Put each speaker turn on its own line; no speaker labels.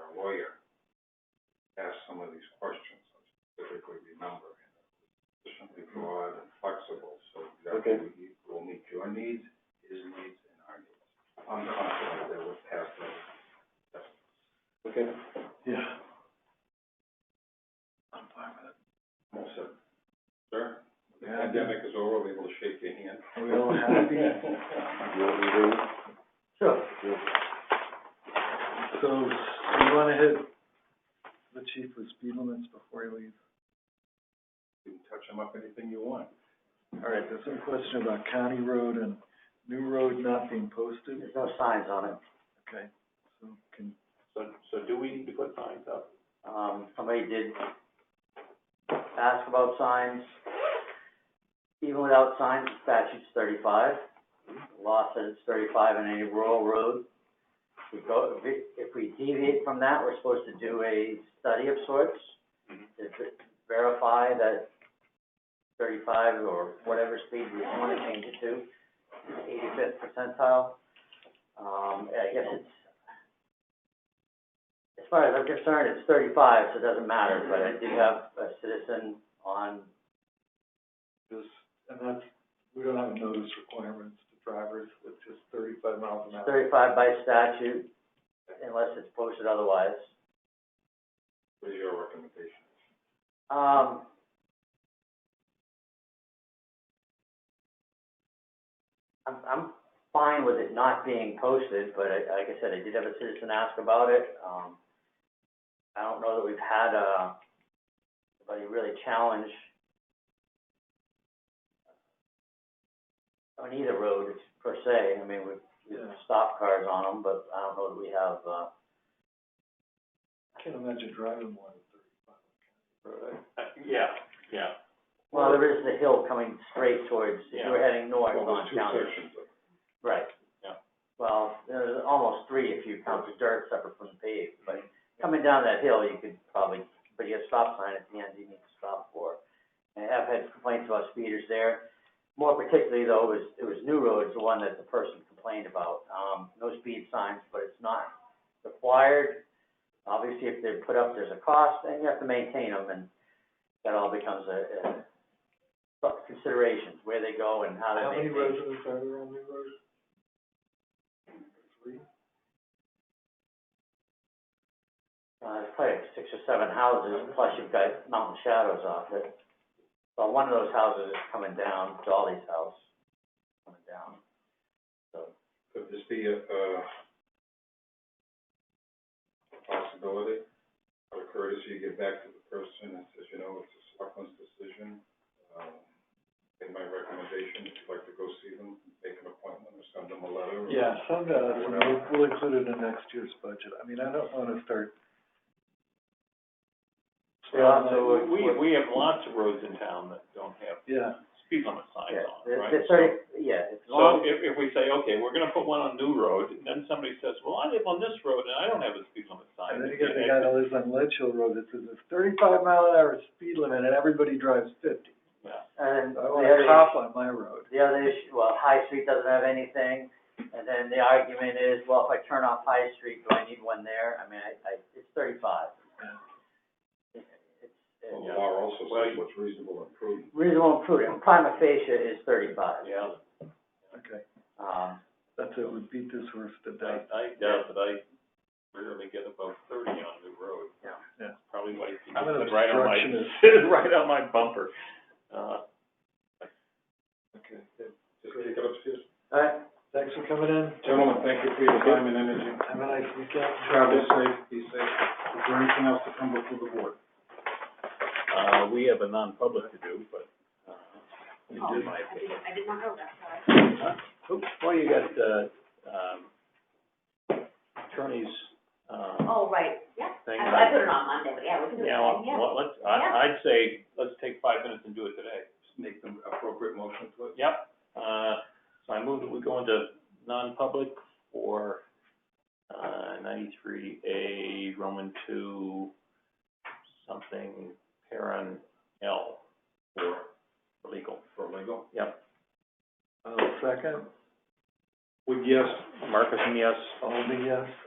employer asked some of these questions, specifically remember, and it was sufficiently broad and flexible, so
Okay.
exactly we will meet your needs, his needs, and our needs. I'm confident that we'll pass that.
Okay.
Yeah. I'm fine with it. Well said. Sir, the
Yeah.
pandemic is over, we will shake your hand.
We all happy?
You want me to do it?
Sure. So, you wanna hit the chief with speed limits before you leave?
You can touch them up anything you want.
All right, there's some question about county road and new road not being posted.
There's no signs on it.
Okay, so can,
So, so do we need to put signs up?
Um, somebody did ask about signs. Even without signs, the statute's thirty-five. The Law says it's thirty-five on any rural road. If we go, if we- if we deviate from that, we're supposed to do a study of sorts to ver- verify that thirty-five or whatever speed we want to change it to, eighty-fifth percentile. Um, I guess it's as far as I'm concerned, it's thirty-five, so it doesn't matter, but I do have a citizen on,
this, and that's, we don't have notice requirements to drivers, it's just thirty-five miles an hour.
thirty-five by statute, unless it's posted otherwise.
What is your recommendation?
Um, I'm, I'm fine with it not being posted, but I, like I said, I did have a citizen ask about it, um, I don't know that we've had, uh, anybody really challenge on either road per se, I mean, we've, we've
Yeah.
stopped cars on them, but I don't know that we have, uh,
I can't imagine driving more than thirty-five on county road. I-
Uh, yeah, yeah.
well, there is the hill coming straight towards, if you were heading north
Well,
on
there's two
County
sections of it.
Right.
Yeah.
Well, there's almost three if you count the dirt separate from the paved, but coming down that hill, you could probably, but you have a stop sign at the end you need to stop for. And I've had complaints about speeders there. More particularly though, was, it was New Roads, the one that the person complained about. Um, no speed signs, but it's not required. Obviously, if they're put up, there's a cost and you have to maintain them and that all becomes a, a considerations, where they go and how
How
they
many
maintain.
residents are there on New Road? Three?
Uh, there's probably six or seven houses, plus you've got mountain shadows off it. But one of those houses is coming down, Dolly's house, coming down. So,
Could this be a, uh, a possibility? Out of courtesy, you get back to the person and says, you know, it's a selectman's decision. Um, in my recommendation, if you'd like to go see them, make an appointment or send them a letter. or-
Yeah, send us, and we'll, we'll include it in next year's budget. I mean, I don't wanna start.
Yeah, so-
Uh, We, we- we have lots of roads in town that don't have
Yeah,
speed limit signs
yeah,
on,
the,
right?
the thirty, yeah, it's
So
long,
if, if we say, okay, we're gonna put one on New Road, and then somebody says, well, I live on this road and I don't have a speed limit
and
sign.
then you got the guy that lives on Ledge Hill Road that says it's thirty-five mile an hour speed limit and everybody drives fifty.
Yeah,
and then
I
the
want
other,
a cop on my road.
the other issue, well, High Street doesn't have anything. And then the argument is, well, if I turn off High Street, do I need one there? I mean, I, I, it's thirty-five.
Well,
It's, it's
The law also
Well,
says
you-
what's reasonable and prudent.
reasonable and prudent, prima facie is thirty-five.
yeah,
Okay,
Um,
that's it, we beat this horse to
I,
death.
I doubt that I rarely get above thirty on New Road.
Yeah.
Yeah.
Probably why it's
I'm an
right on my,
obstructionist.
right on my bumper. Uh,
Okay,
Just take it upstairs.
all right,
thanks for coming in.
Gentlemen, thank you for your time and energy.
Have a nice weekend.
Travel safe, be safe. Is there anything else to come before the board?
Uh, we have a non-public to do, but, uh, we
Oh,
did my opinion. I did not know that, Oops, well, you got, uh, um, attorney's, uh,
Oh, right, yeah.
thing.
I, I put it on Monday, but yeah, we can do it
Yeah,
then,
well,
yeah.
well, let's, I, I'd say, let's take five minutes and do it today.
Make the appropriate motion to it.
Yep, uh, so I move that we go into non-public for, uh, ninety-three A, Roman two, something, parent L, for legal.
For legal?
Yep,
Uh, second,
Would yes.
Marcus, yes.
Alden, yes.